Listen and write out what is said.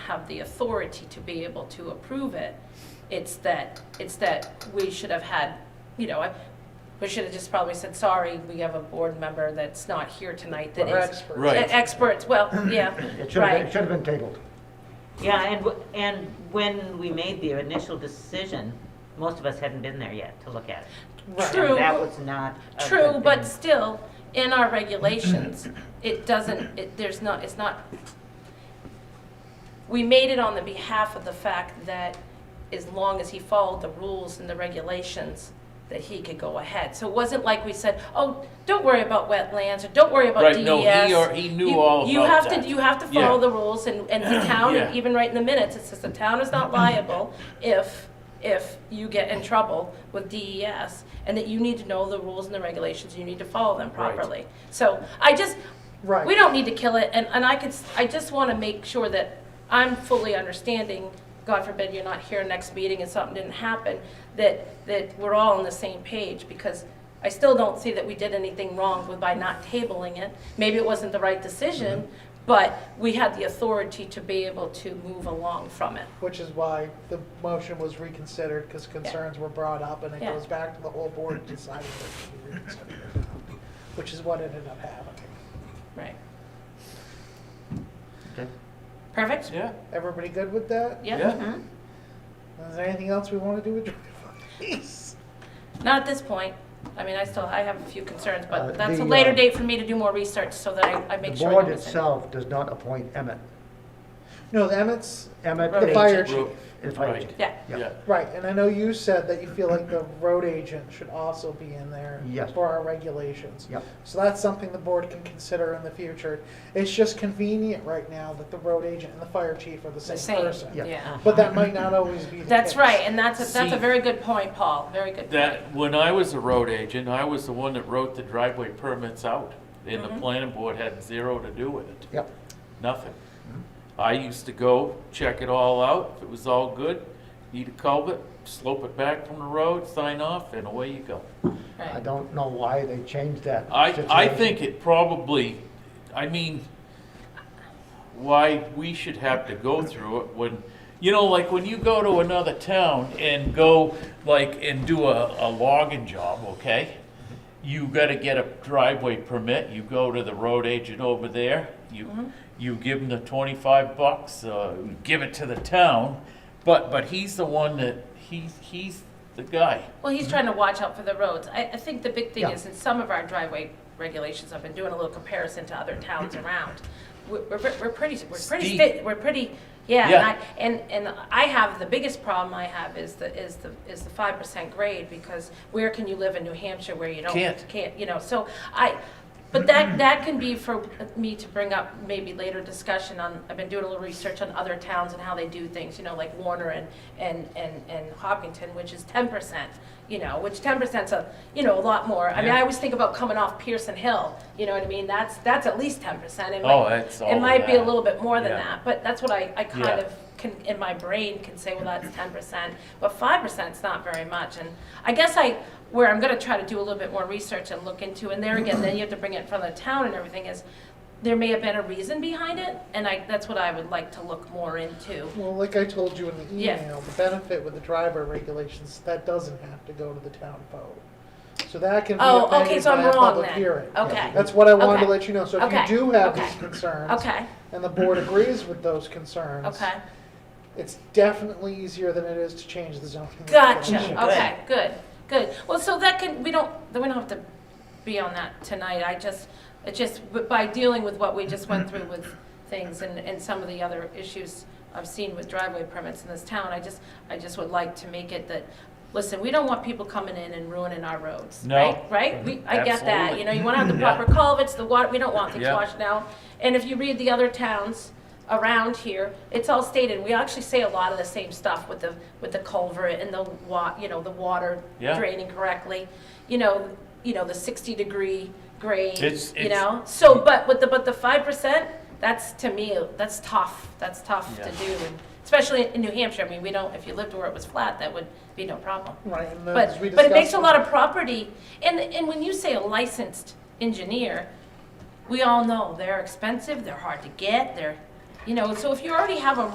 have the authority to be able to approve it. It's that, it's that we should have had, you know, I- we should have just probably said, sorry, we have a board member that's not here tonight that We're is. e-, experts. Right. Experts, well, yeah, It should have been, it right, should have been tabled. Yeah, and, w- and when we made the initial decision, most of us hadn't been there yet to look at it. True. And That was not. a true, good but thing. still, in our regulations, it doesn't, it, there's not, it's not, we made it on the behalf of the fact that as long as he followed the rules and the regulations, that he could go ahead. So it wasn't like we said, oh, don't worry about wetlands, or don't worry about DES. Right, no, he or- he knew You- all You about have to, that. you have to Yeah. follow the rules, and, and the town, Yeah. even right in the minutes, it says the town is not liable if, if you get in trouble with DES, and that you need to know the rules and the regulations, you need to follow them Right. properly. So I just, Right. we don't need to kill it, and, and I could, s- I just want to make sure that I'm fully understanding, God forbid you're not here next meeting and something didn't happen, that, that we're all on the same page, because I still don't see that we did anything wrong with by not tabling it. Maybe it wasn't the right decision, but we had the authority to be able to move along from it. Which is why the motion was reconsidered, because concerns were brought up, and it Yeah. goes back to the whole board deciding that it should be reconsidered or not, which is what ended up happening. Right. Okay. Perfect? Yeah, Everybody good with that? Yeah. Is there anything else we want to do with Drive-Bys? Not at this point. I mean, I still, I have a few concerns, Uh, but that's a the, later uh, date for me to do more research so that I, I The make sure. board that it's in. itself does not appoint Emmett. No, Emmett's, Emmett. The is- fire chief. Ro- Is Right. right. Yeah. Yeah. yeah. right, and I know you said that you feel like the road agent should also be in there Yes. for our regulations. Yep. So that's something the board can consider in the future. It's just convenient right now that the road agent and the fire chief are the The same same, person. Yeah. yeah. But that might not always be the That's case. right, and that's, a- that's a See- very good point, Paul, very good point. That, when I was a road agent, I was the one that wrote the driveway permits out, and the planning board had zero to do with it, Yep. nothing. I used to go check it all out, if it was all good, need a culvert, slope it back from the road, sign off, and away you go. I Right. don't know why they changed that. I, I situation. think it probably, I mean, why we should have to go through it when, you know, like when you go to another town and go, like, and do a, a logging job, okay? You gotta get a driveway permit, you go to the road agent over there, you, you give him the twenty-five bucks, uh, give it to the town, but, but he's the one that, he's, he's the guy. Well, he's trying to watch out for the roads. I, I think the big thing Yeah. is in some of our driveway regulations, I've been doing a little comparison to other towns around. We're, we're we're pretty, we're pretty, Steep. fit- we're pretty, yeah, Yeah. and I, and, and I have, the biggest problem I have is the, is the, is the five percent grade, because where can you live in New Hampshire where you don't? Can't. Can't, you know, so I, but that, that can be for me to bring up maybe later discussion on, I've been doing a little research on other towns and how they do things, you know, like Warner and, and, and, and Hopkinton, which is ten percent, you know, which ten percent's a, you know, a lot more. I mean, Yeah. I always think about coming off Pearson Hill, you know what I mean? That's, that's at least ten percent. Oh, it's all It of might be a that. little bit more than Yeah. that, but that's what I, I kind Yeah. of can, in my brain can say, well, that's ten percent, but five percent's not very much, and I guess I, where I'm gonna try to do a little bit more research and look into, and there again, then you have to bring it in front of the town and everything, is there may have been a reason behind it, and I, that's what I would like to look more into. Well, like I told you in the Yeah. email, the benefit with the driver regulations, that doesn't have to go to the town vote. So that can be Oh, okay, amended so by I'm a wrong public then, hearing. okay, That's what I wanted Okay. to let you know. So Okay. if you do have Okay. these concerns okay, and the board agrees with those concerns, okay, it's definitely easier than it is to change the zoning. regulation. gotcha, okay, good, good, well, so that can, we don't, then we don't have to be on that tonight, I just, it just, but by dealing with what we just went through with things and, and some of the other issues I've seen with driveway permits in this town, I just, I just would like to make it that, listen, we don't want people coming in and ruining our roads, No. right? Right? We, I get that, you know, you wanna have the proper culverts, the water, we don't want things Yeah. washed out. And if you read the other towns around here, it's all stated, we actually say a lot of the same stuff with the, with the culvert and the wa, you know, the water Yeah. draining correctly. You know, you know, the sixty degree grade, It's- you it's- know? So, but with the, but the five percent, that's to me, that's tough, that's tough to Yeah. do. and Especially in New Hampshire, I mean, we don't, if you lived where it was flat, that would be no problem. Right, and as But, we but it makes a discussed- lot of property, and, and when you say a licensed engineer, we all know they're expensive, they're hard to get, they're, you know, so if you already have a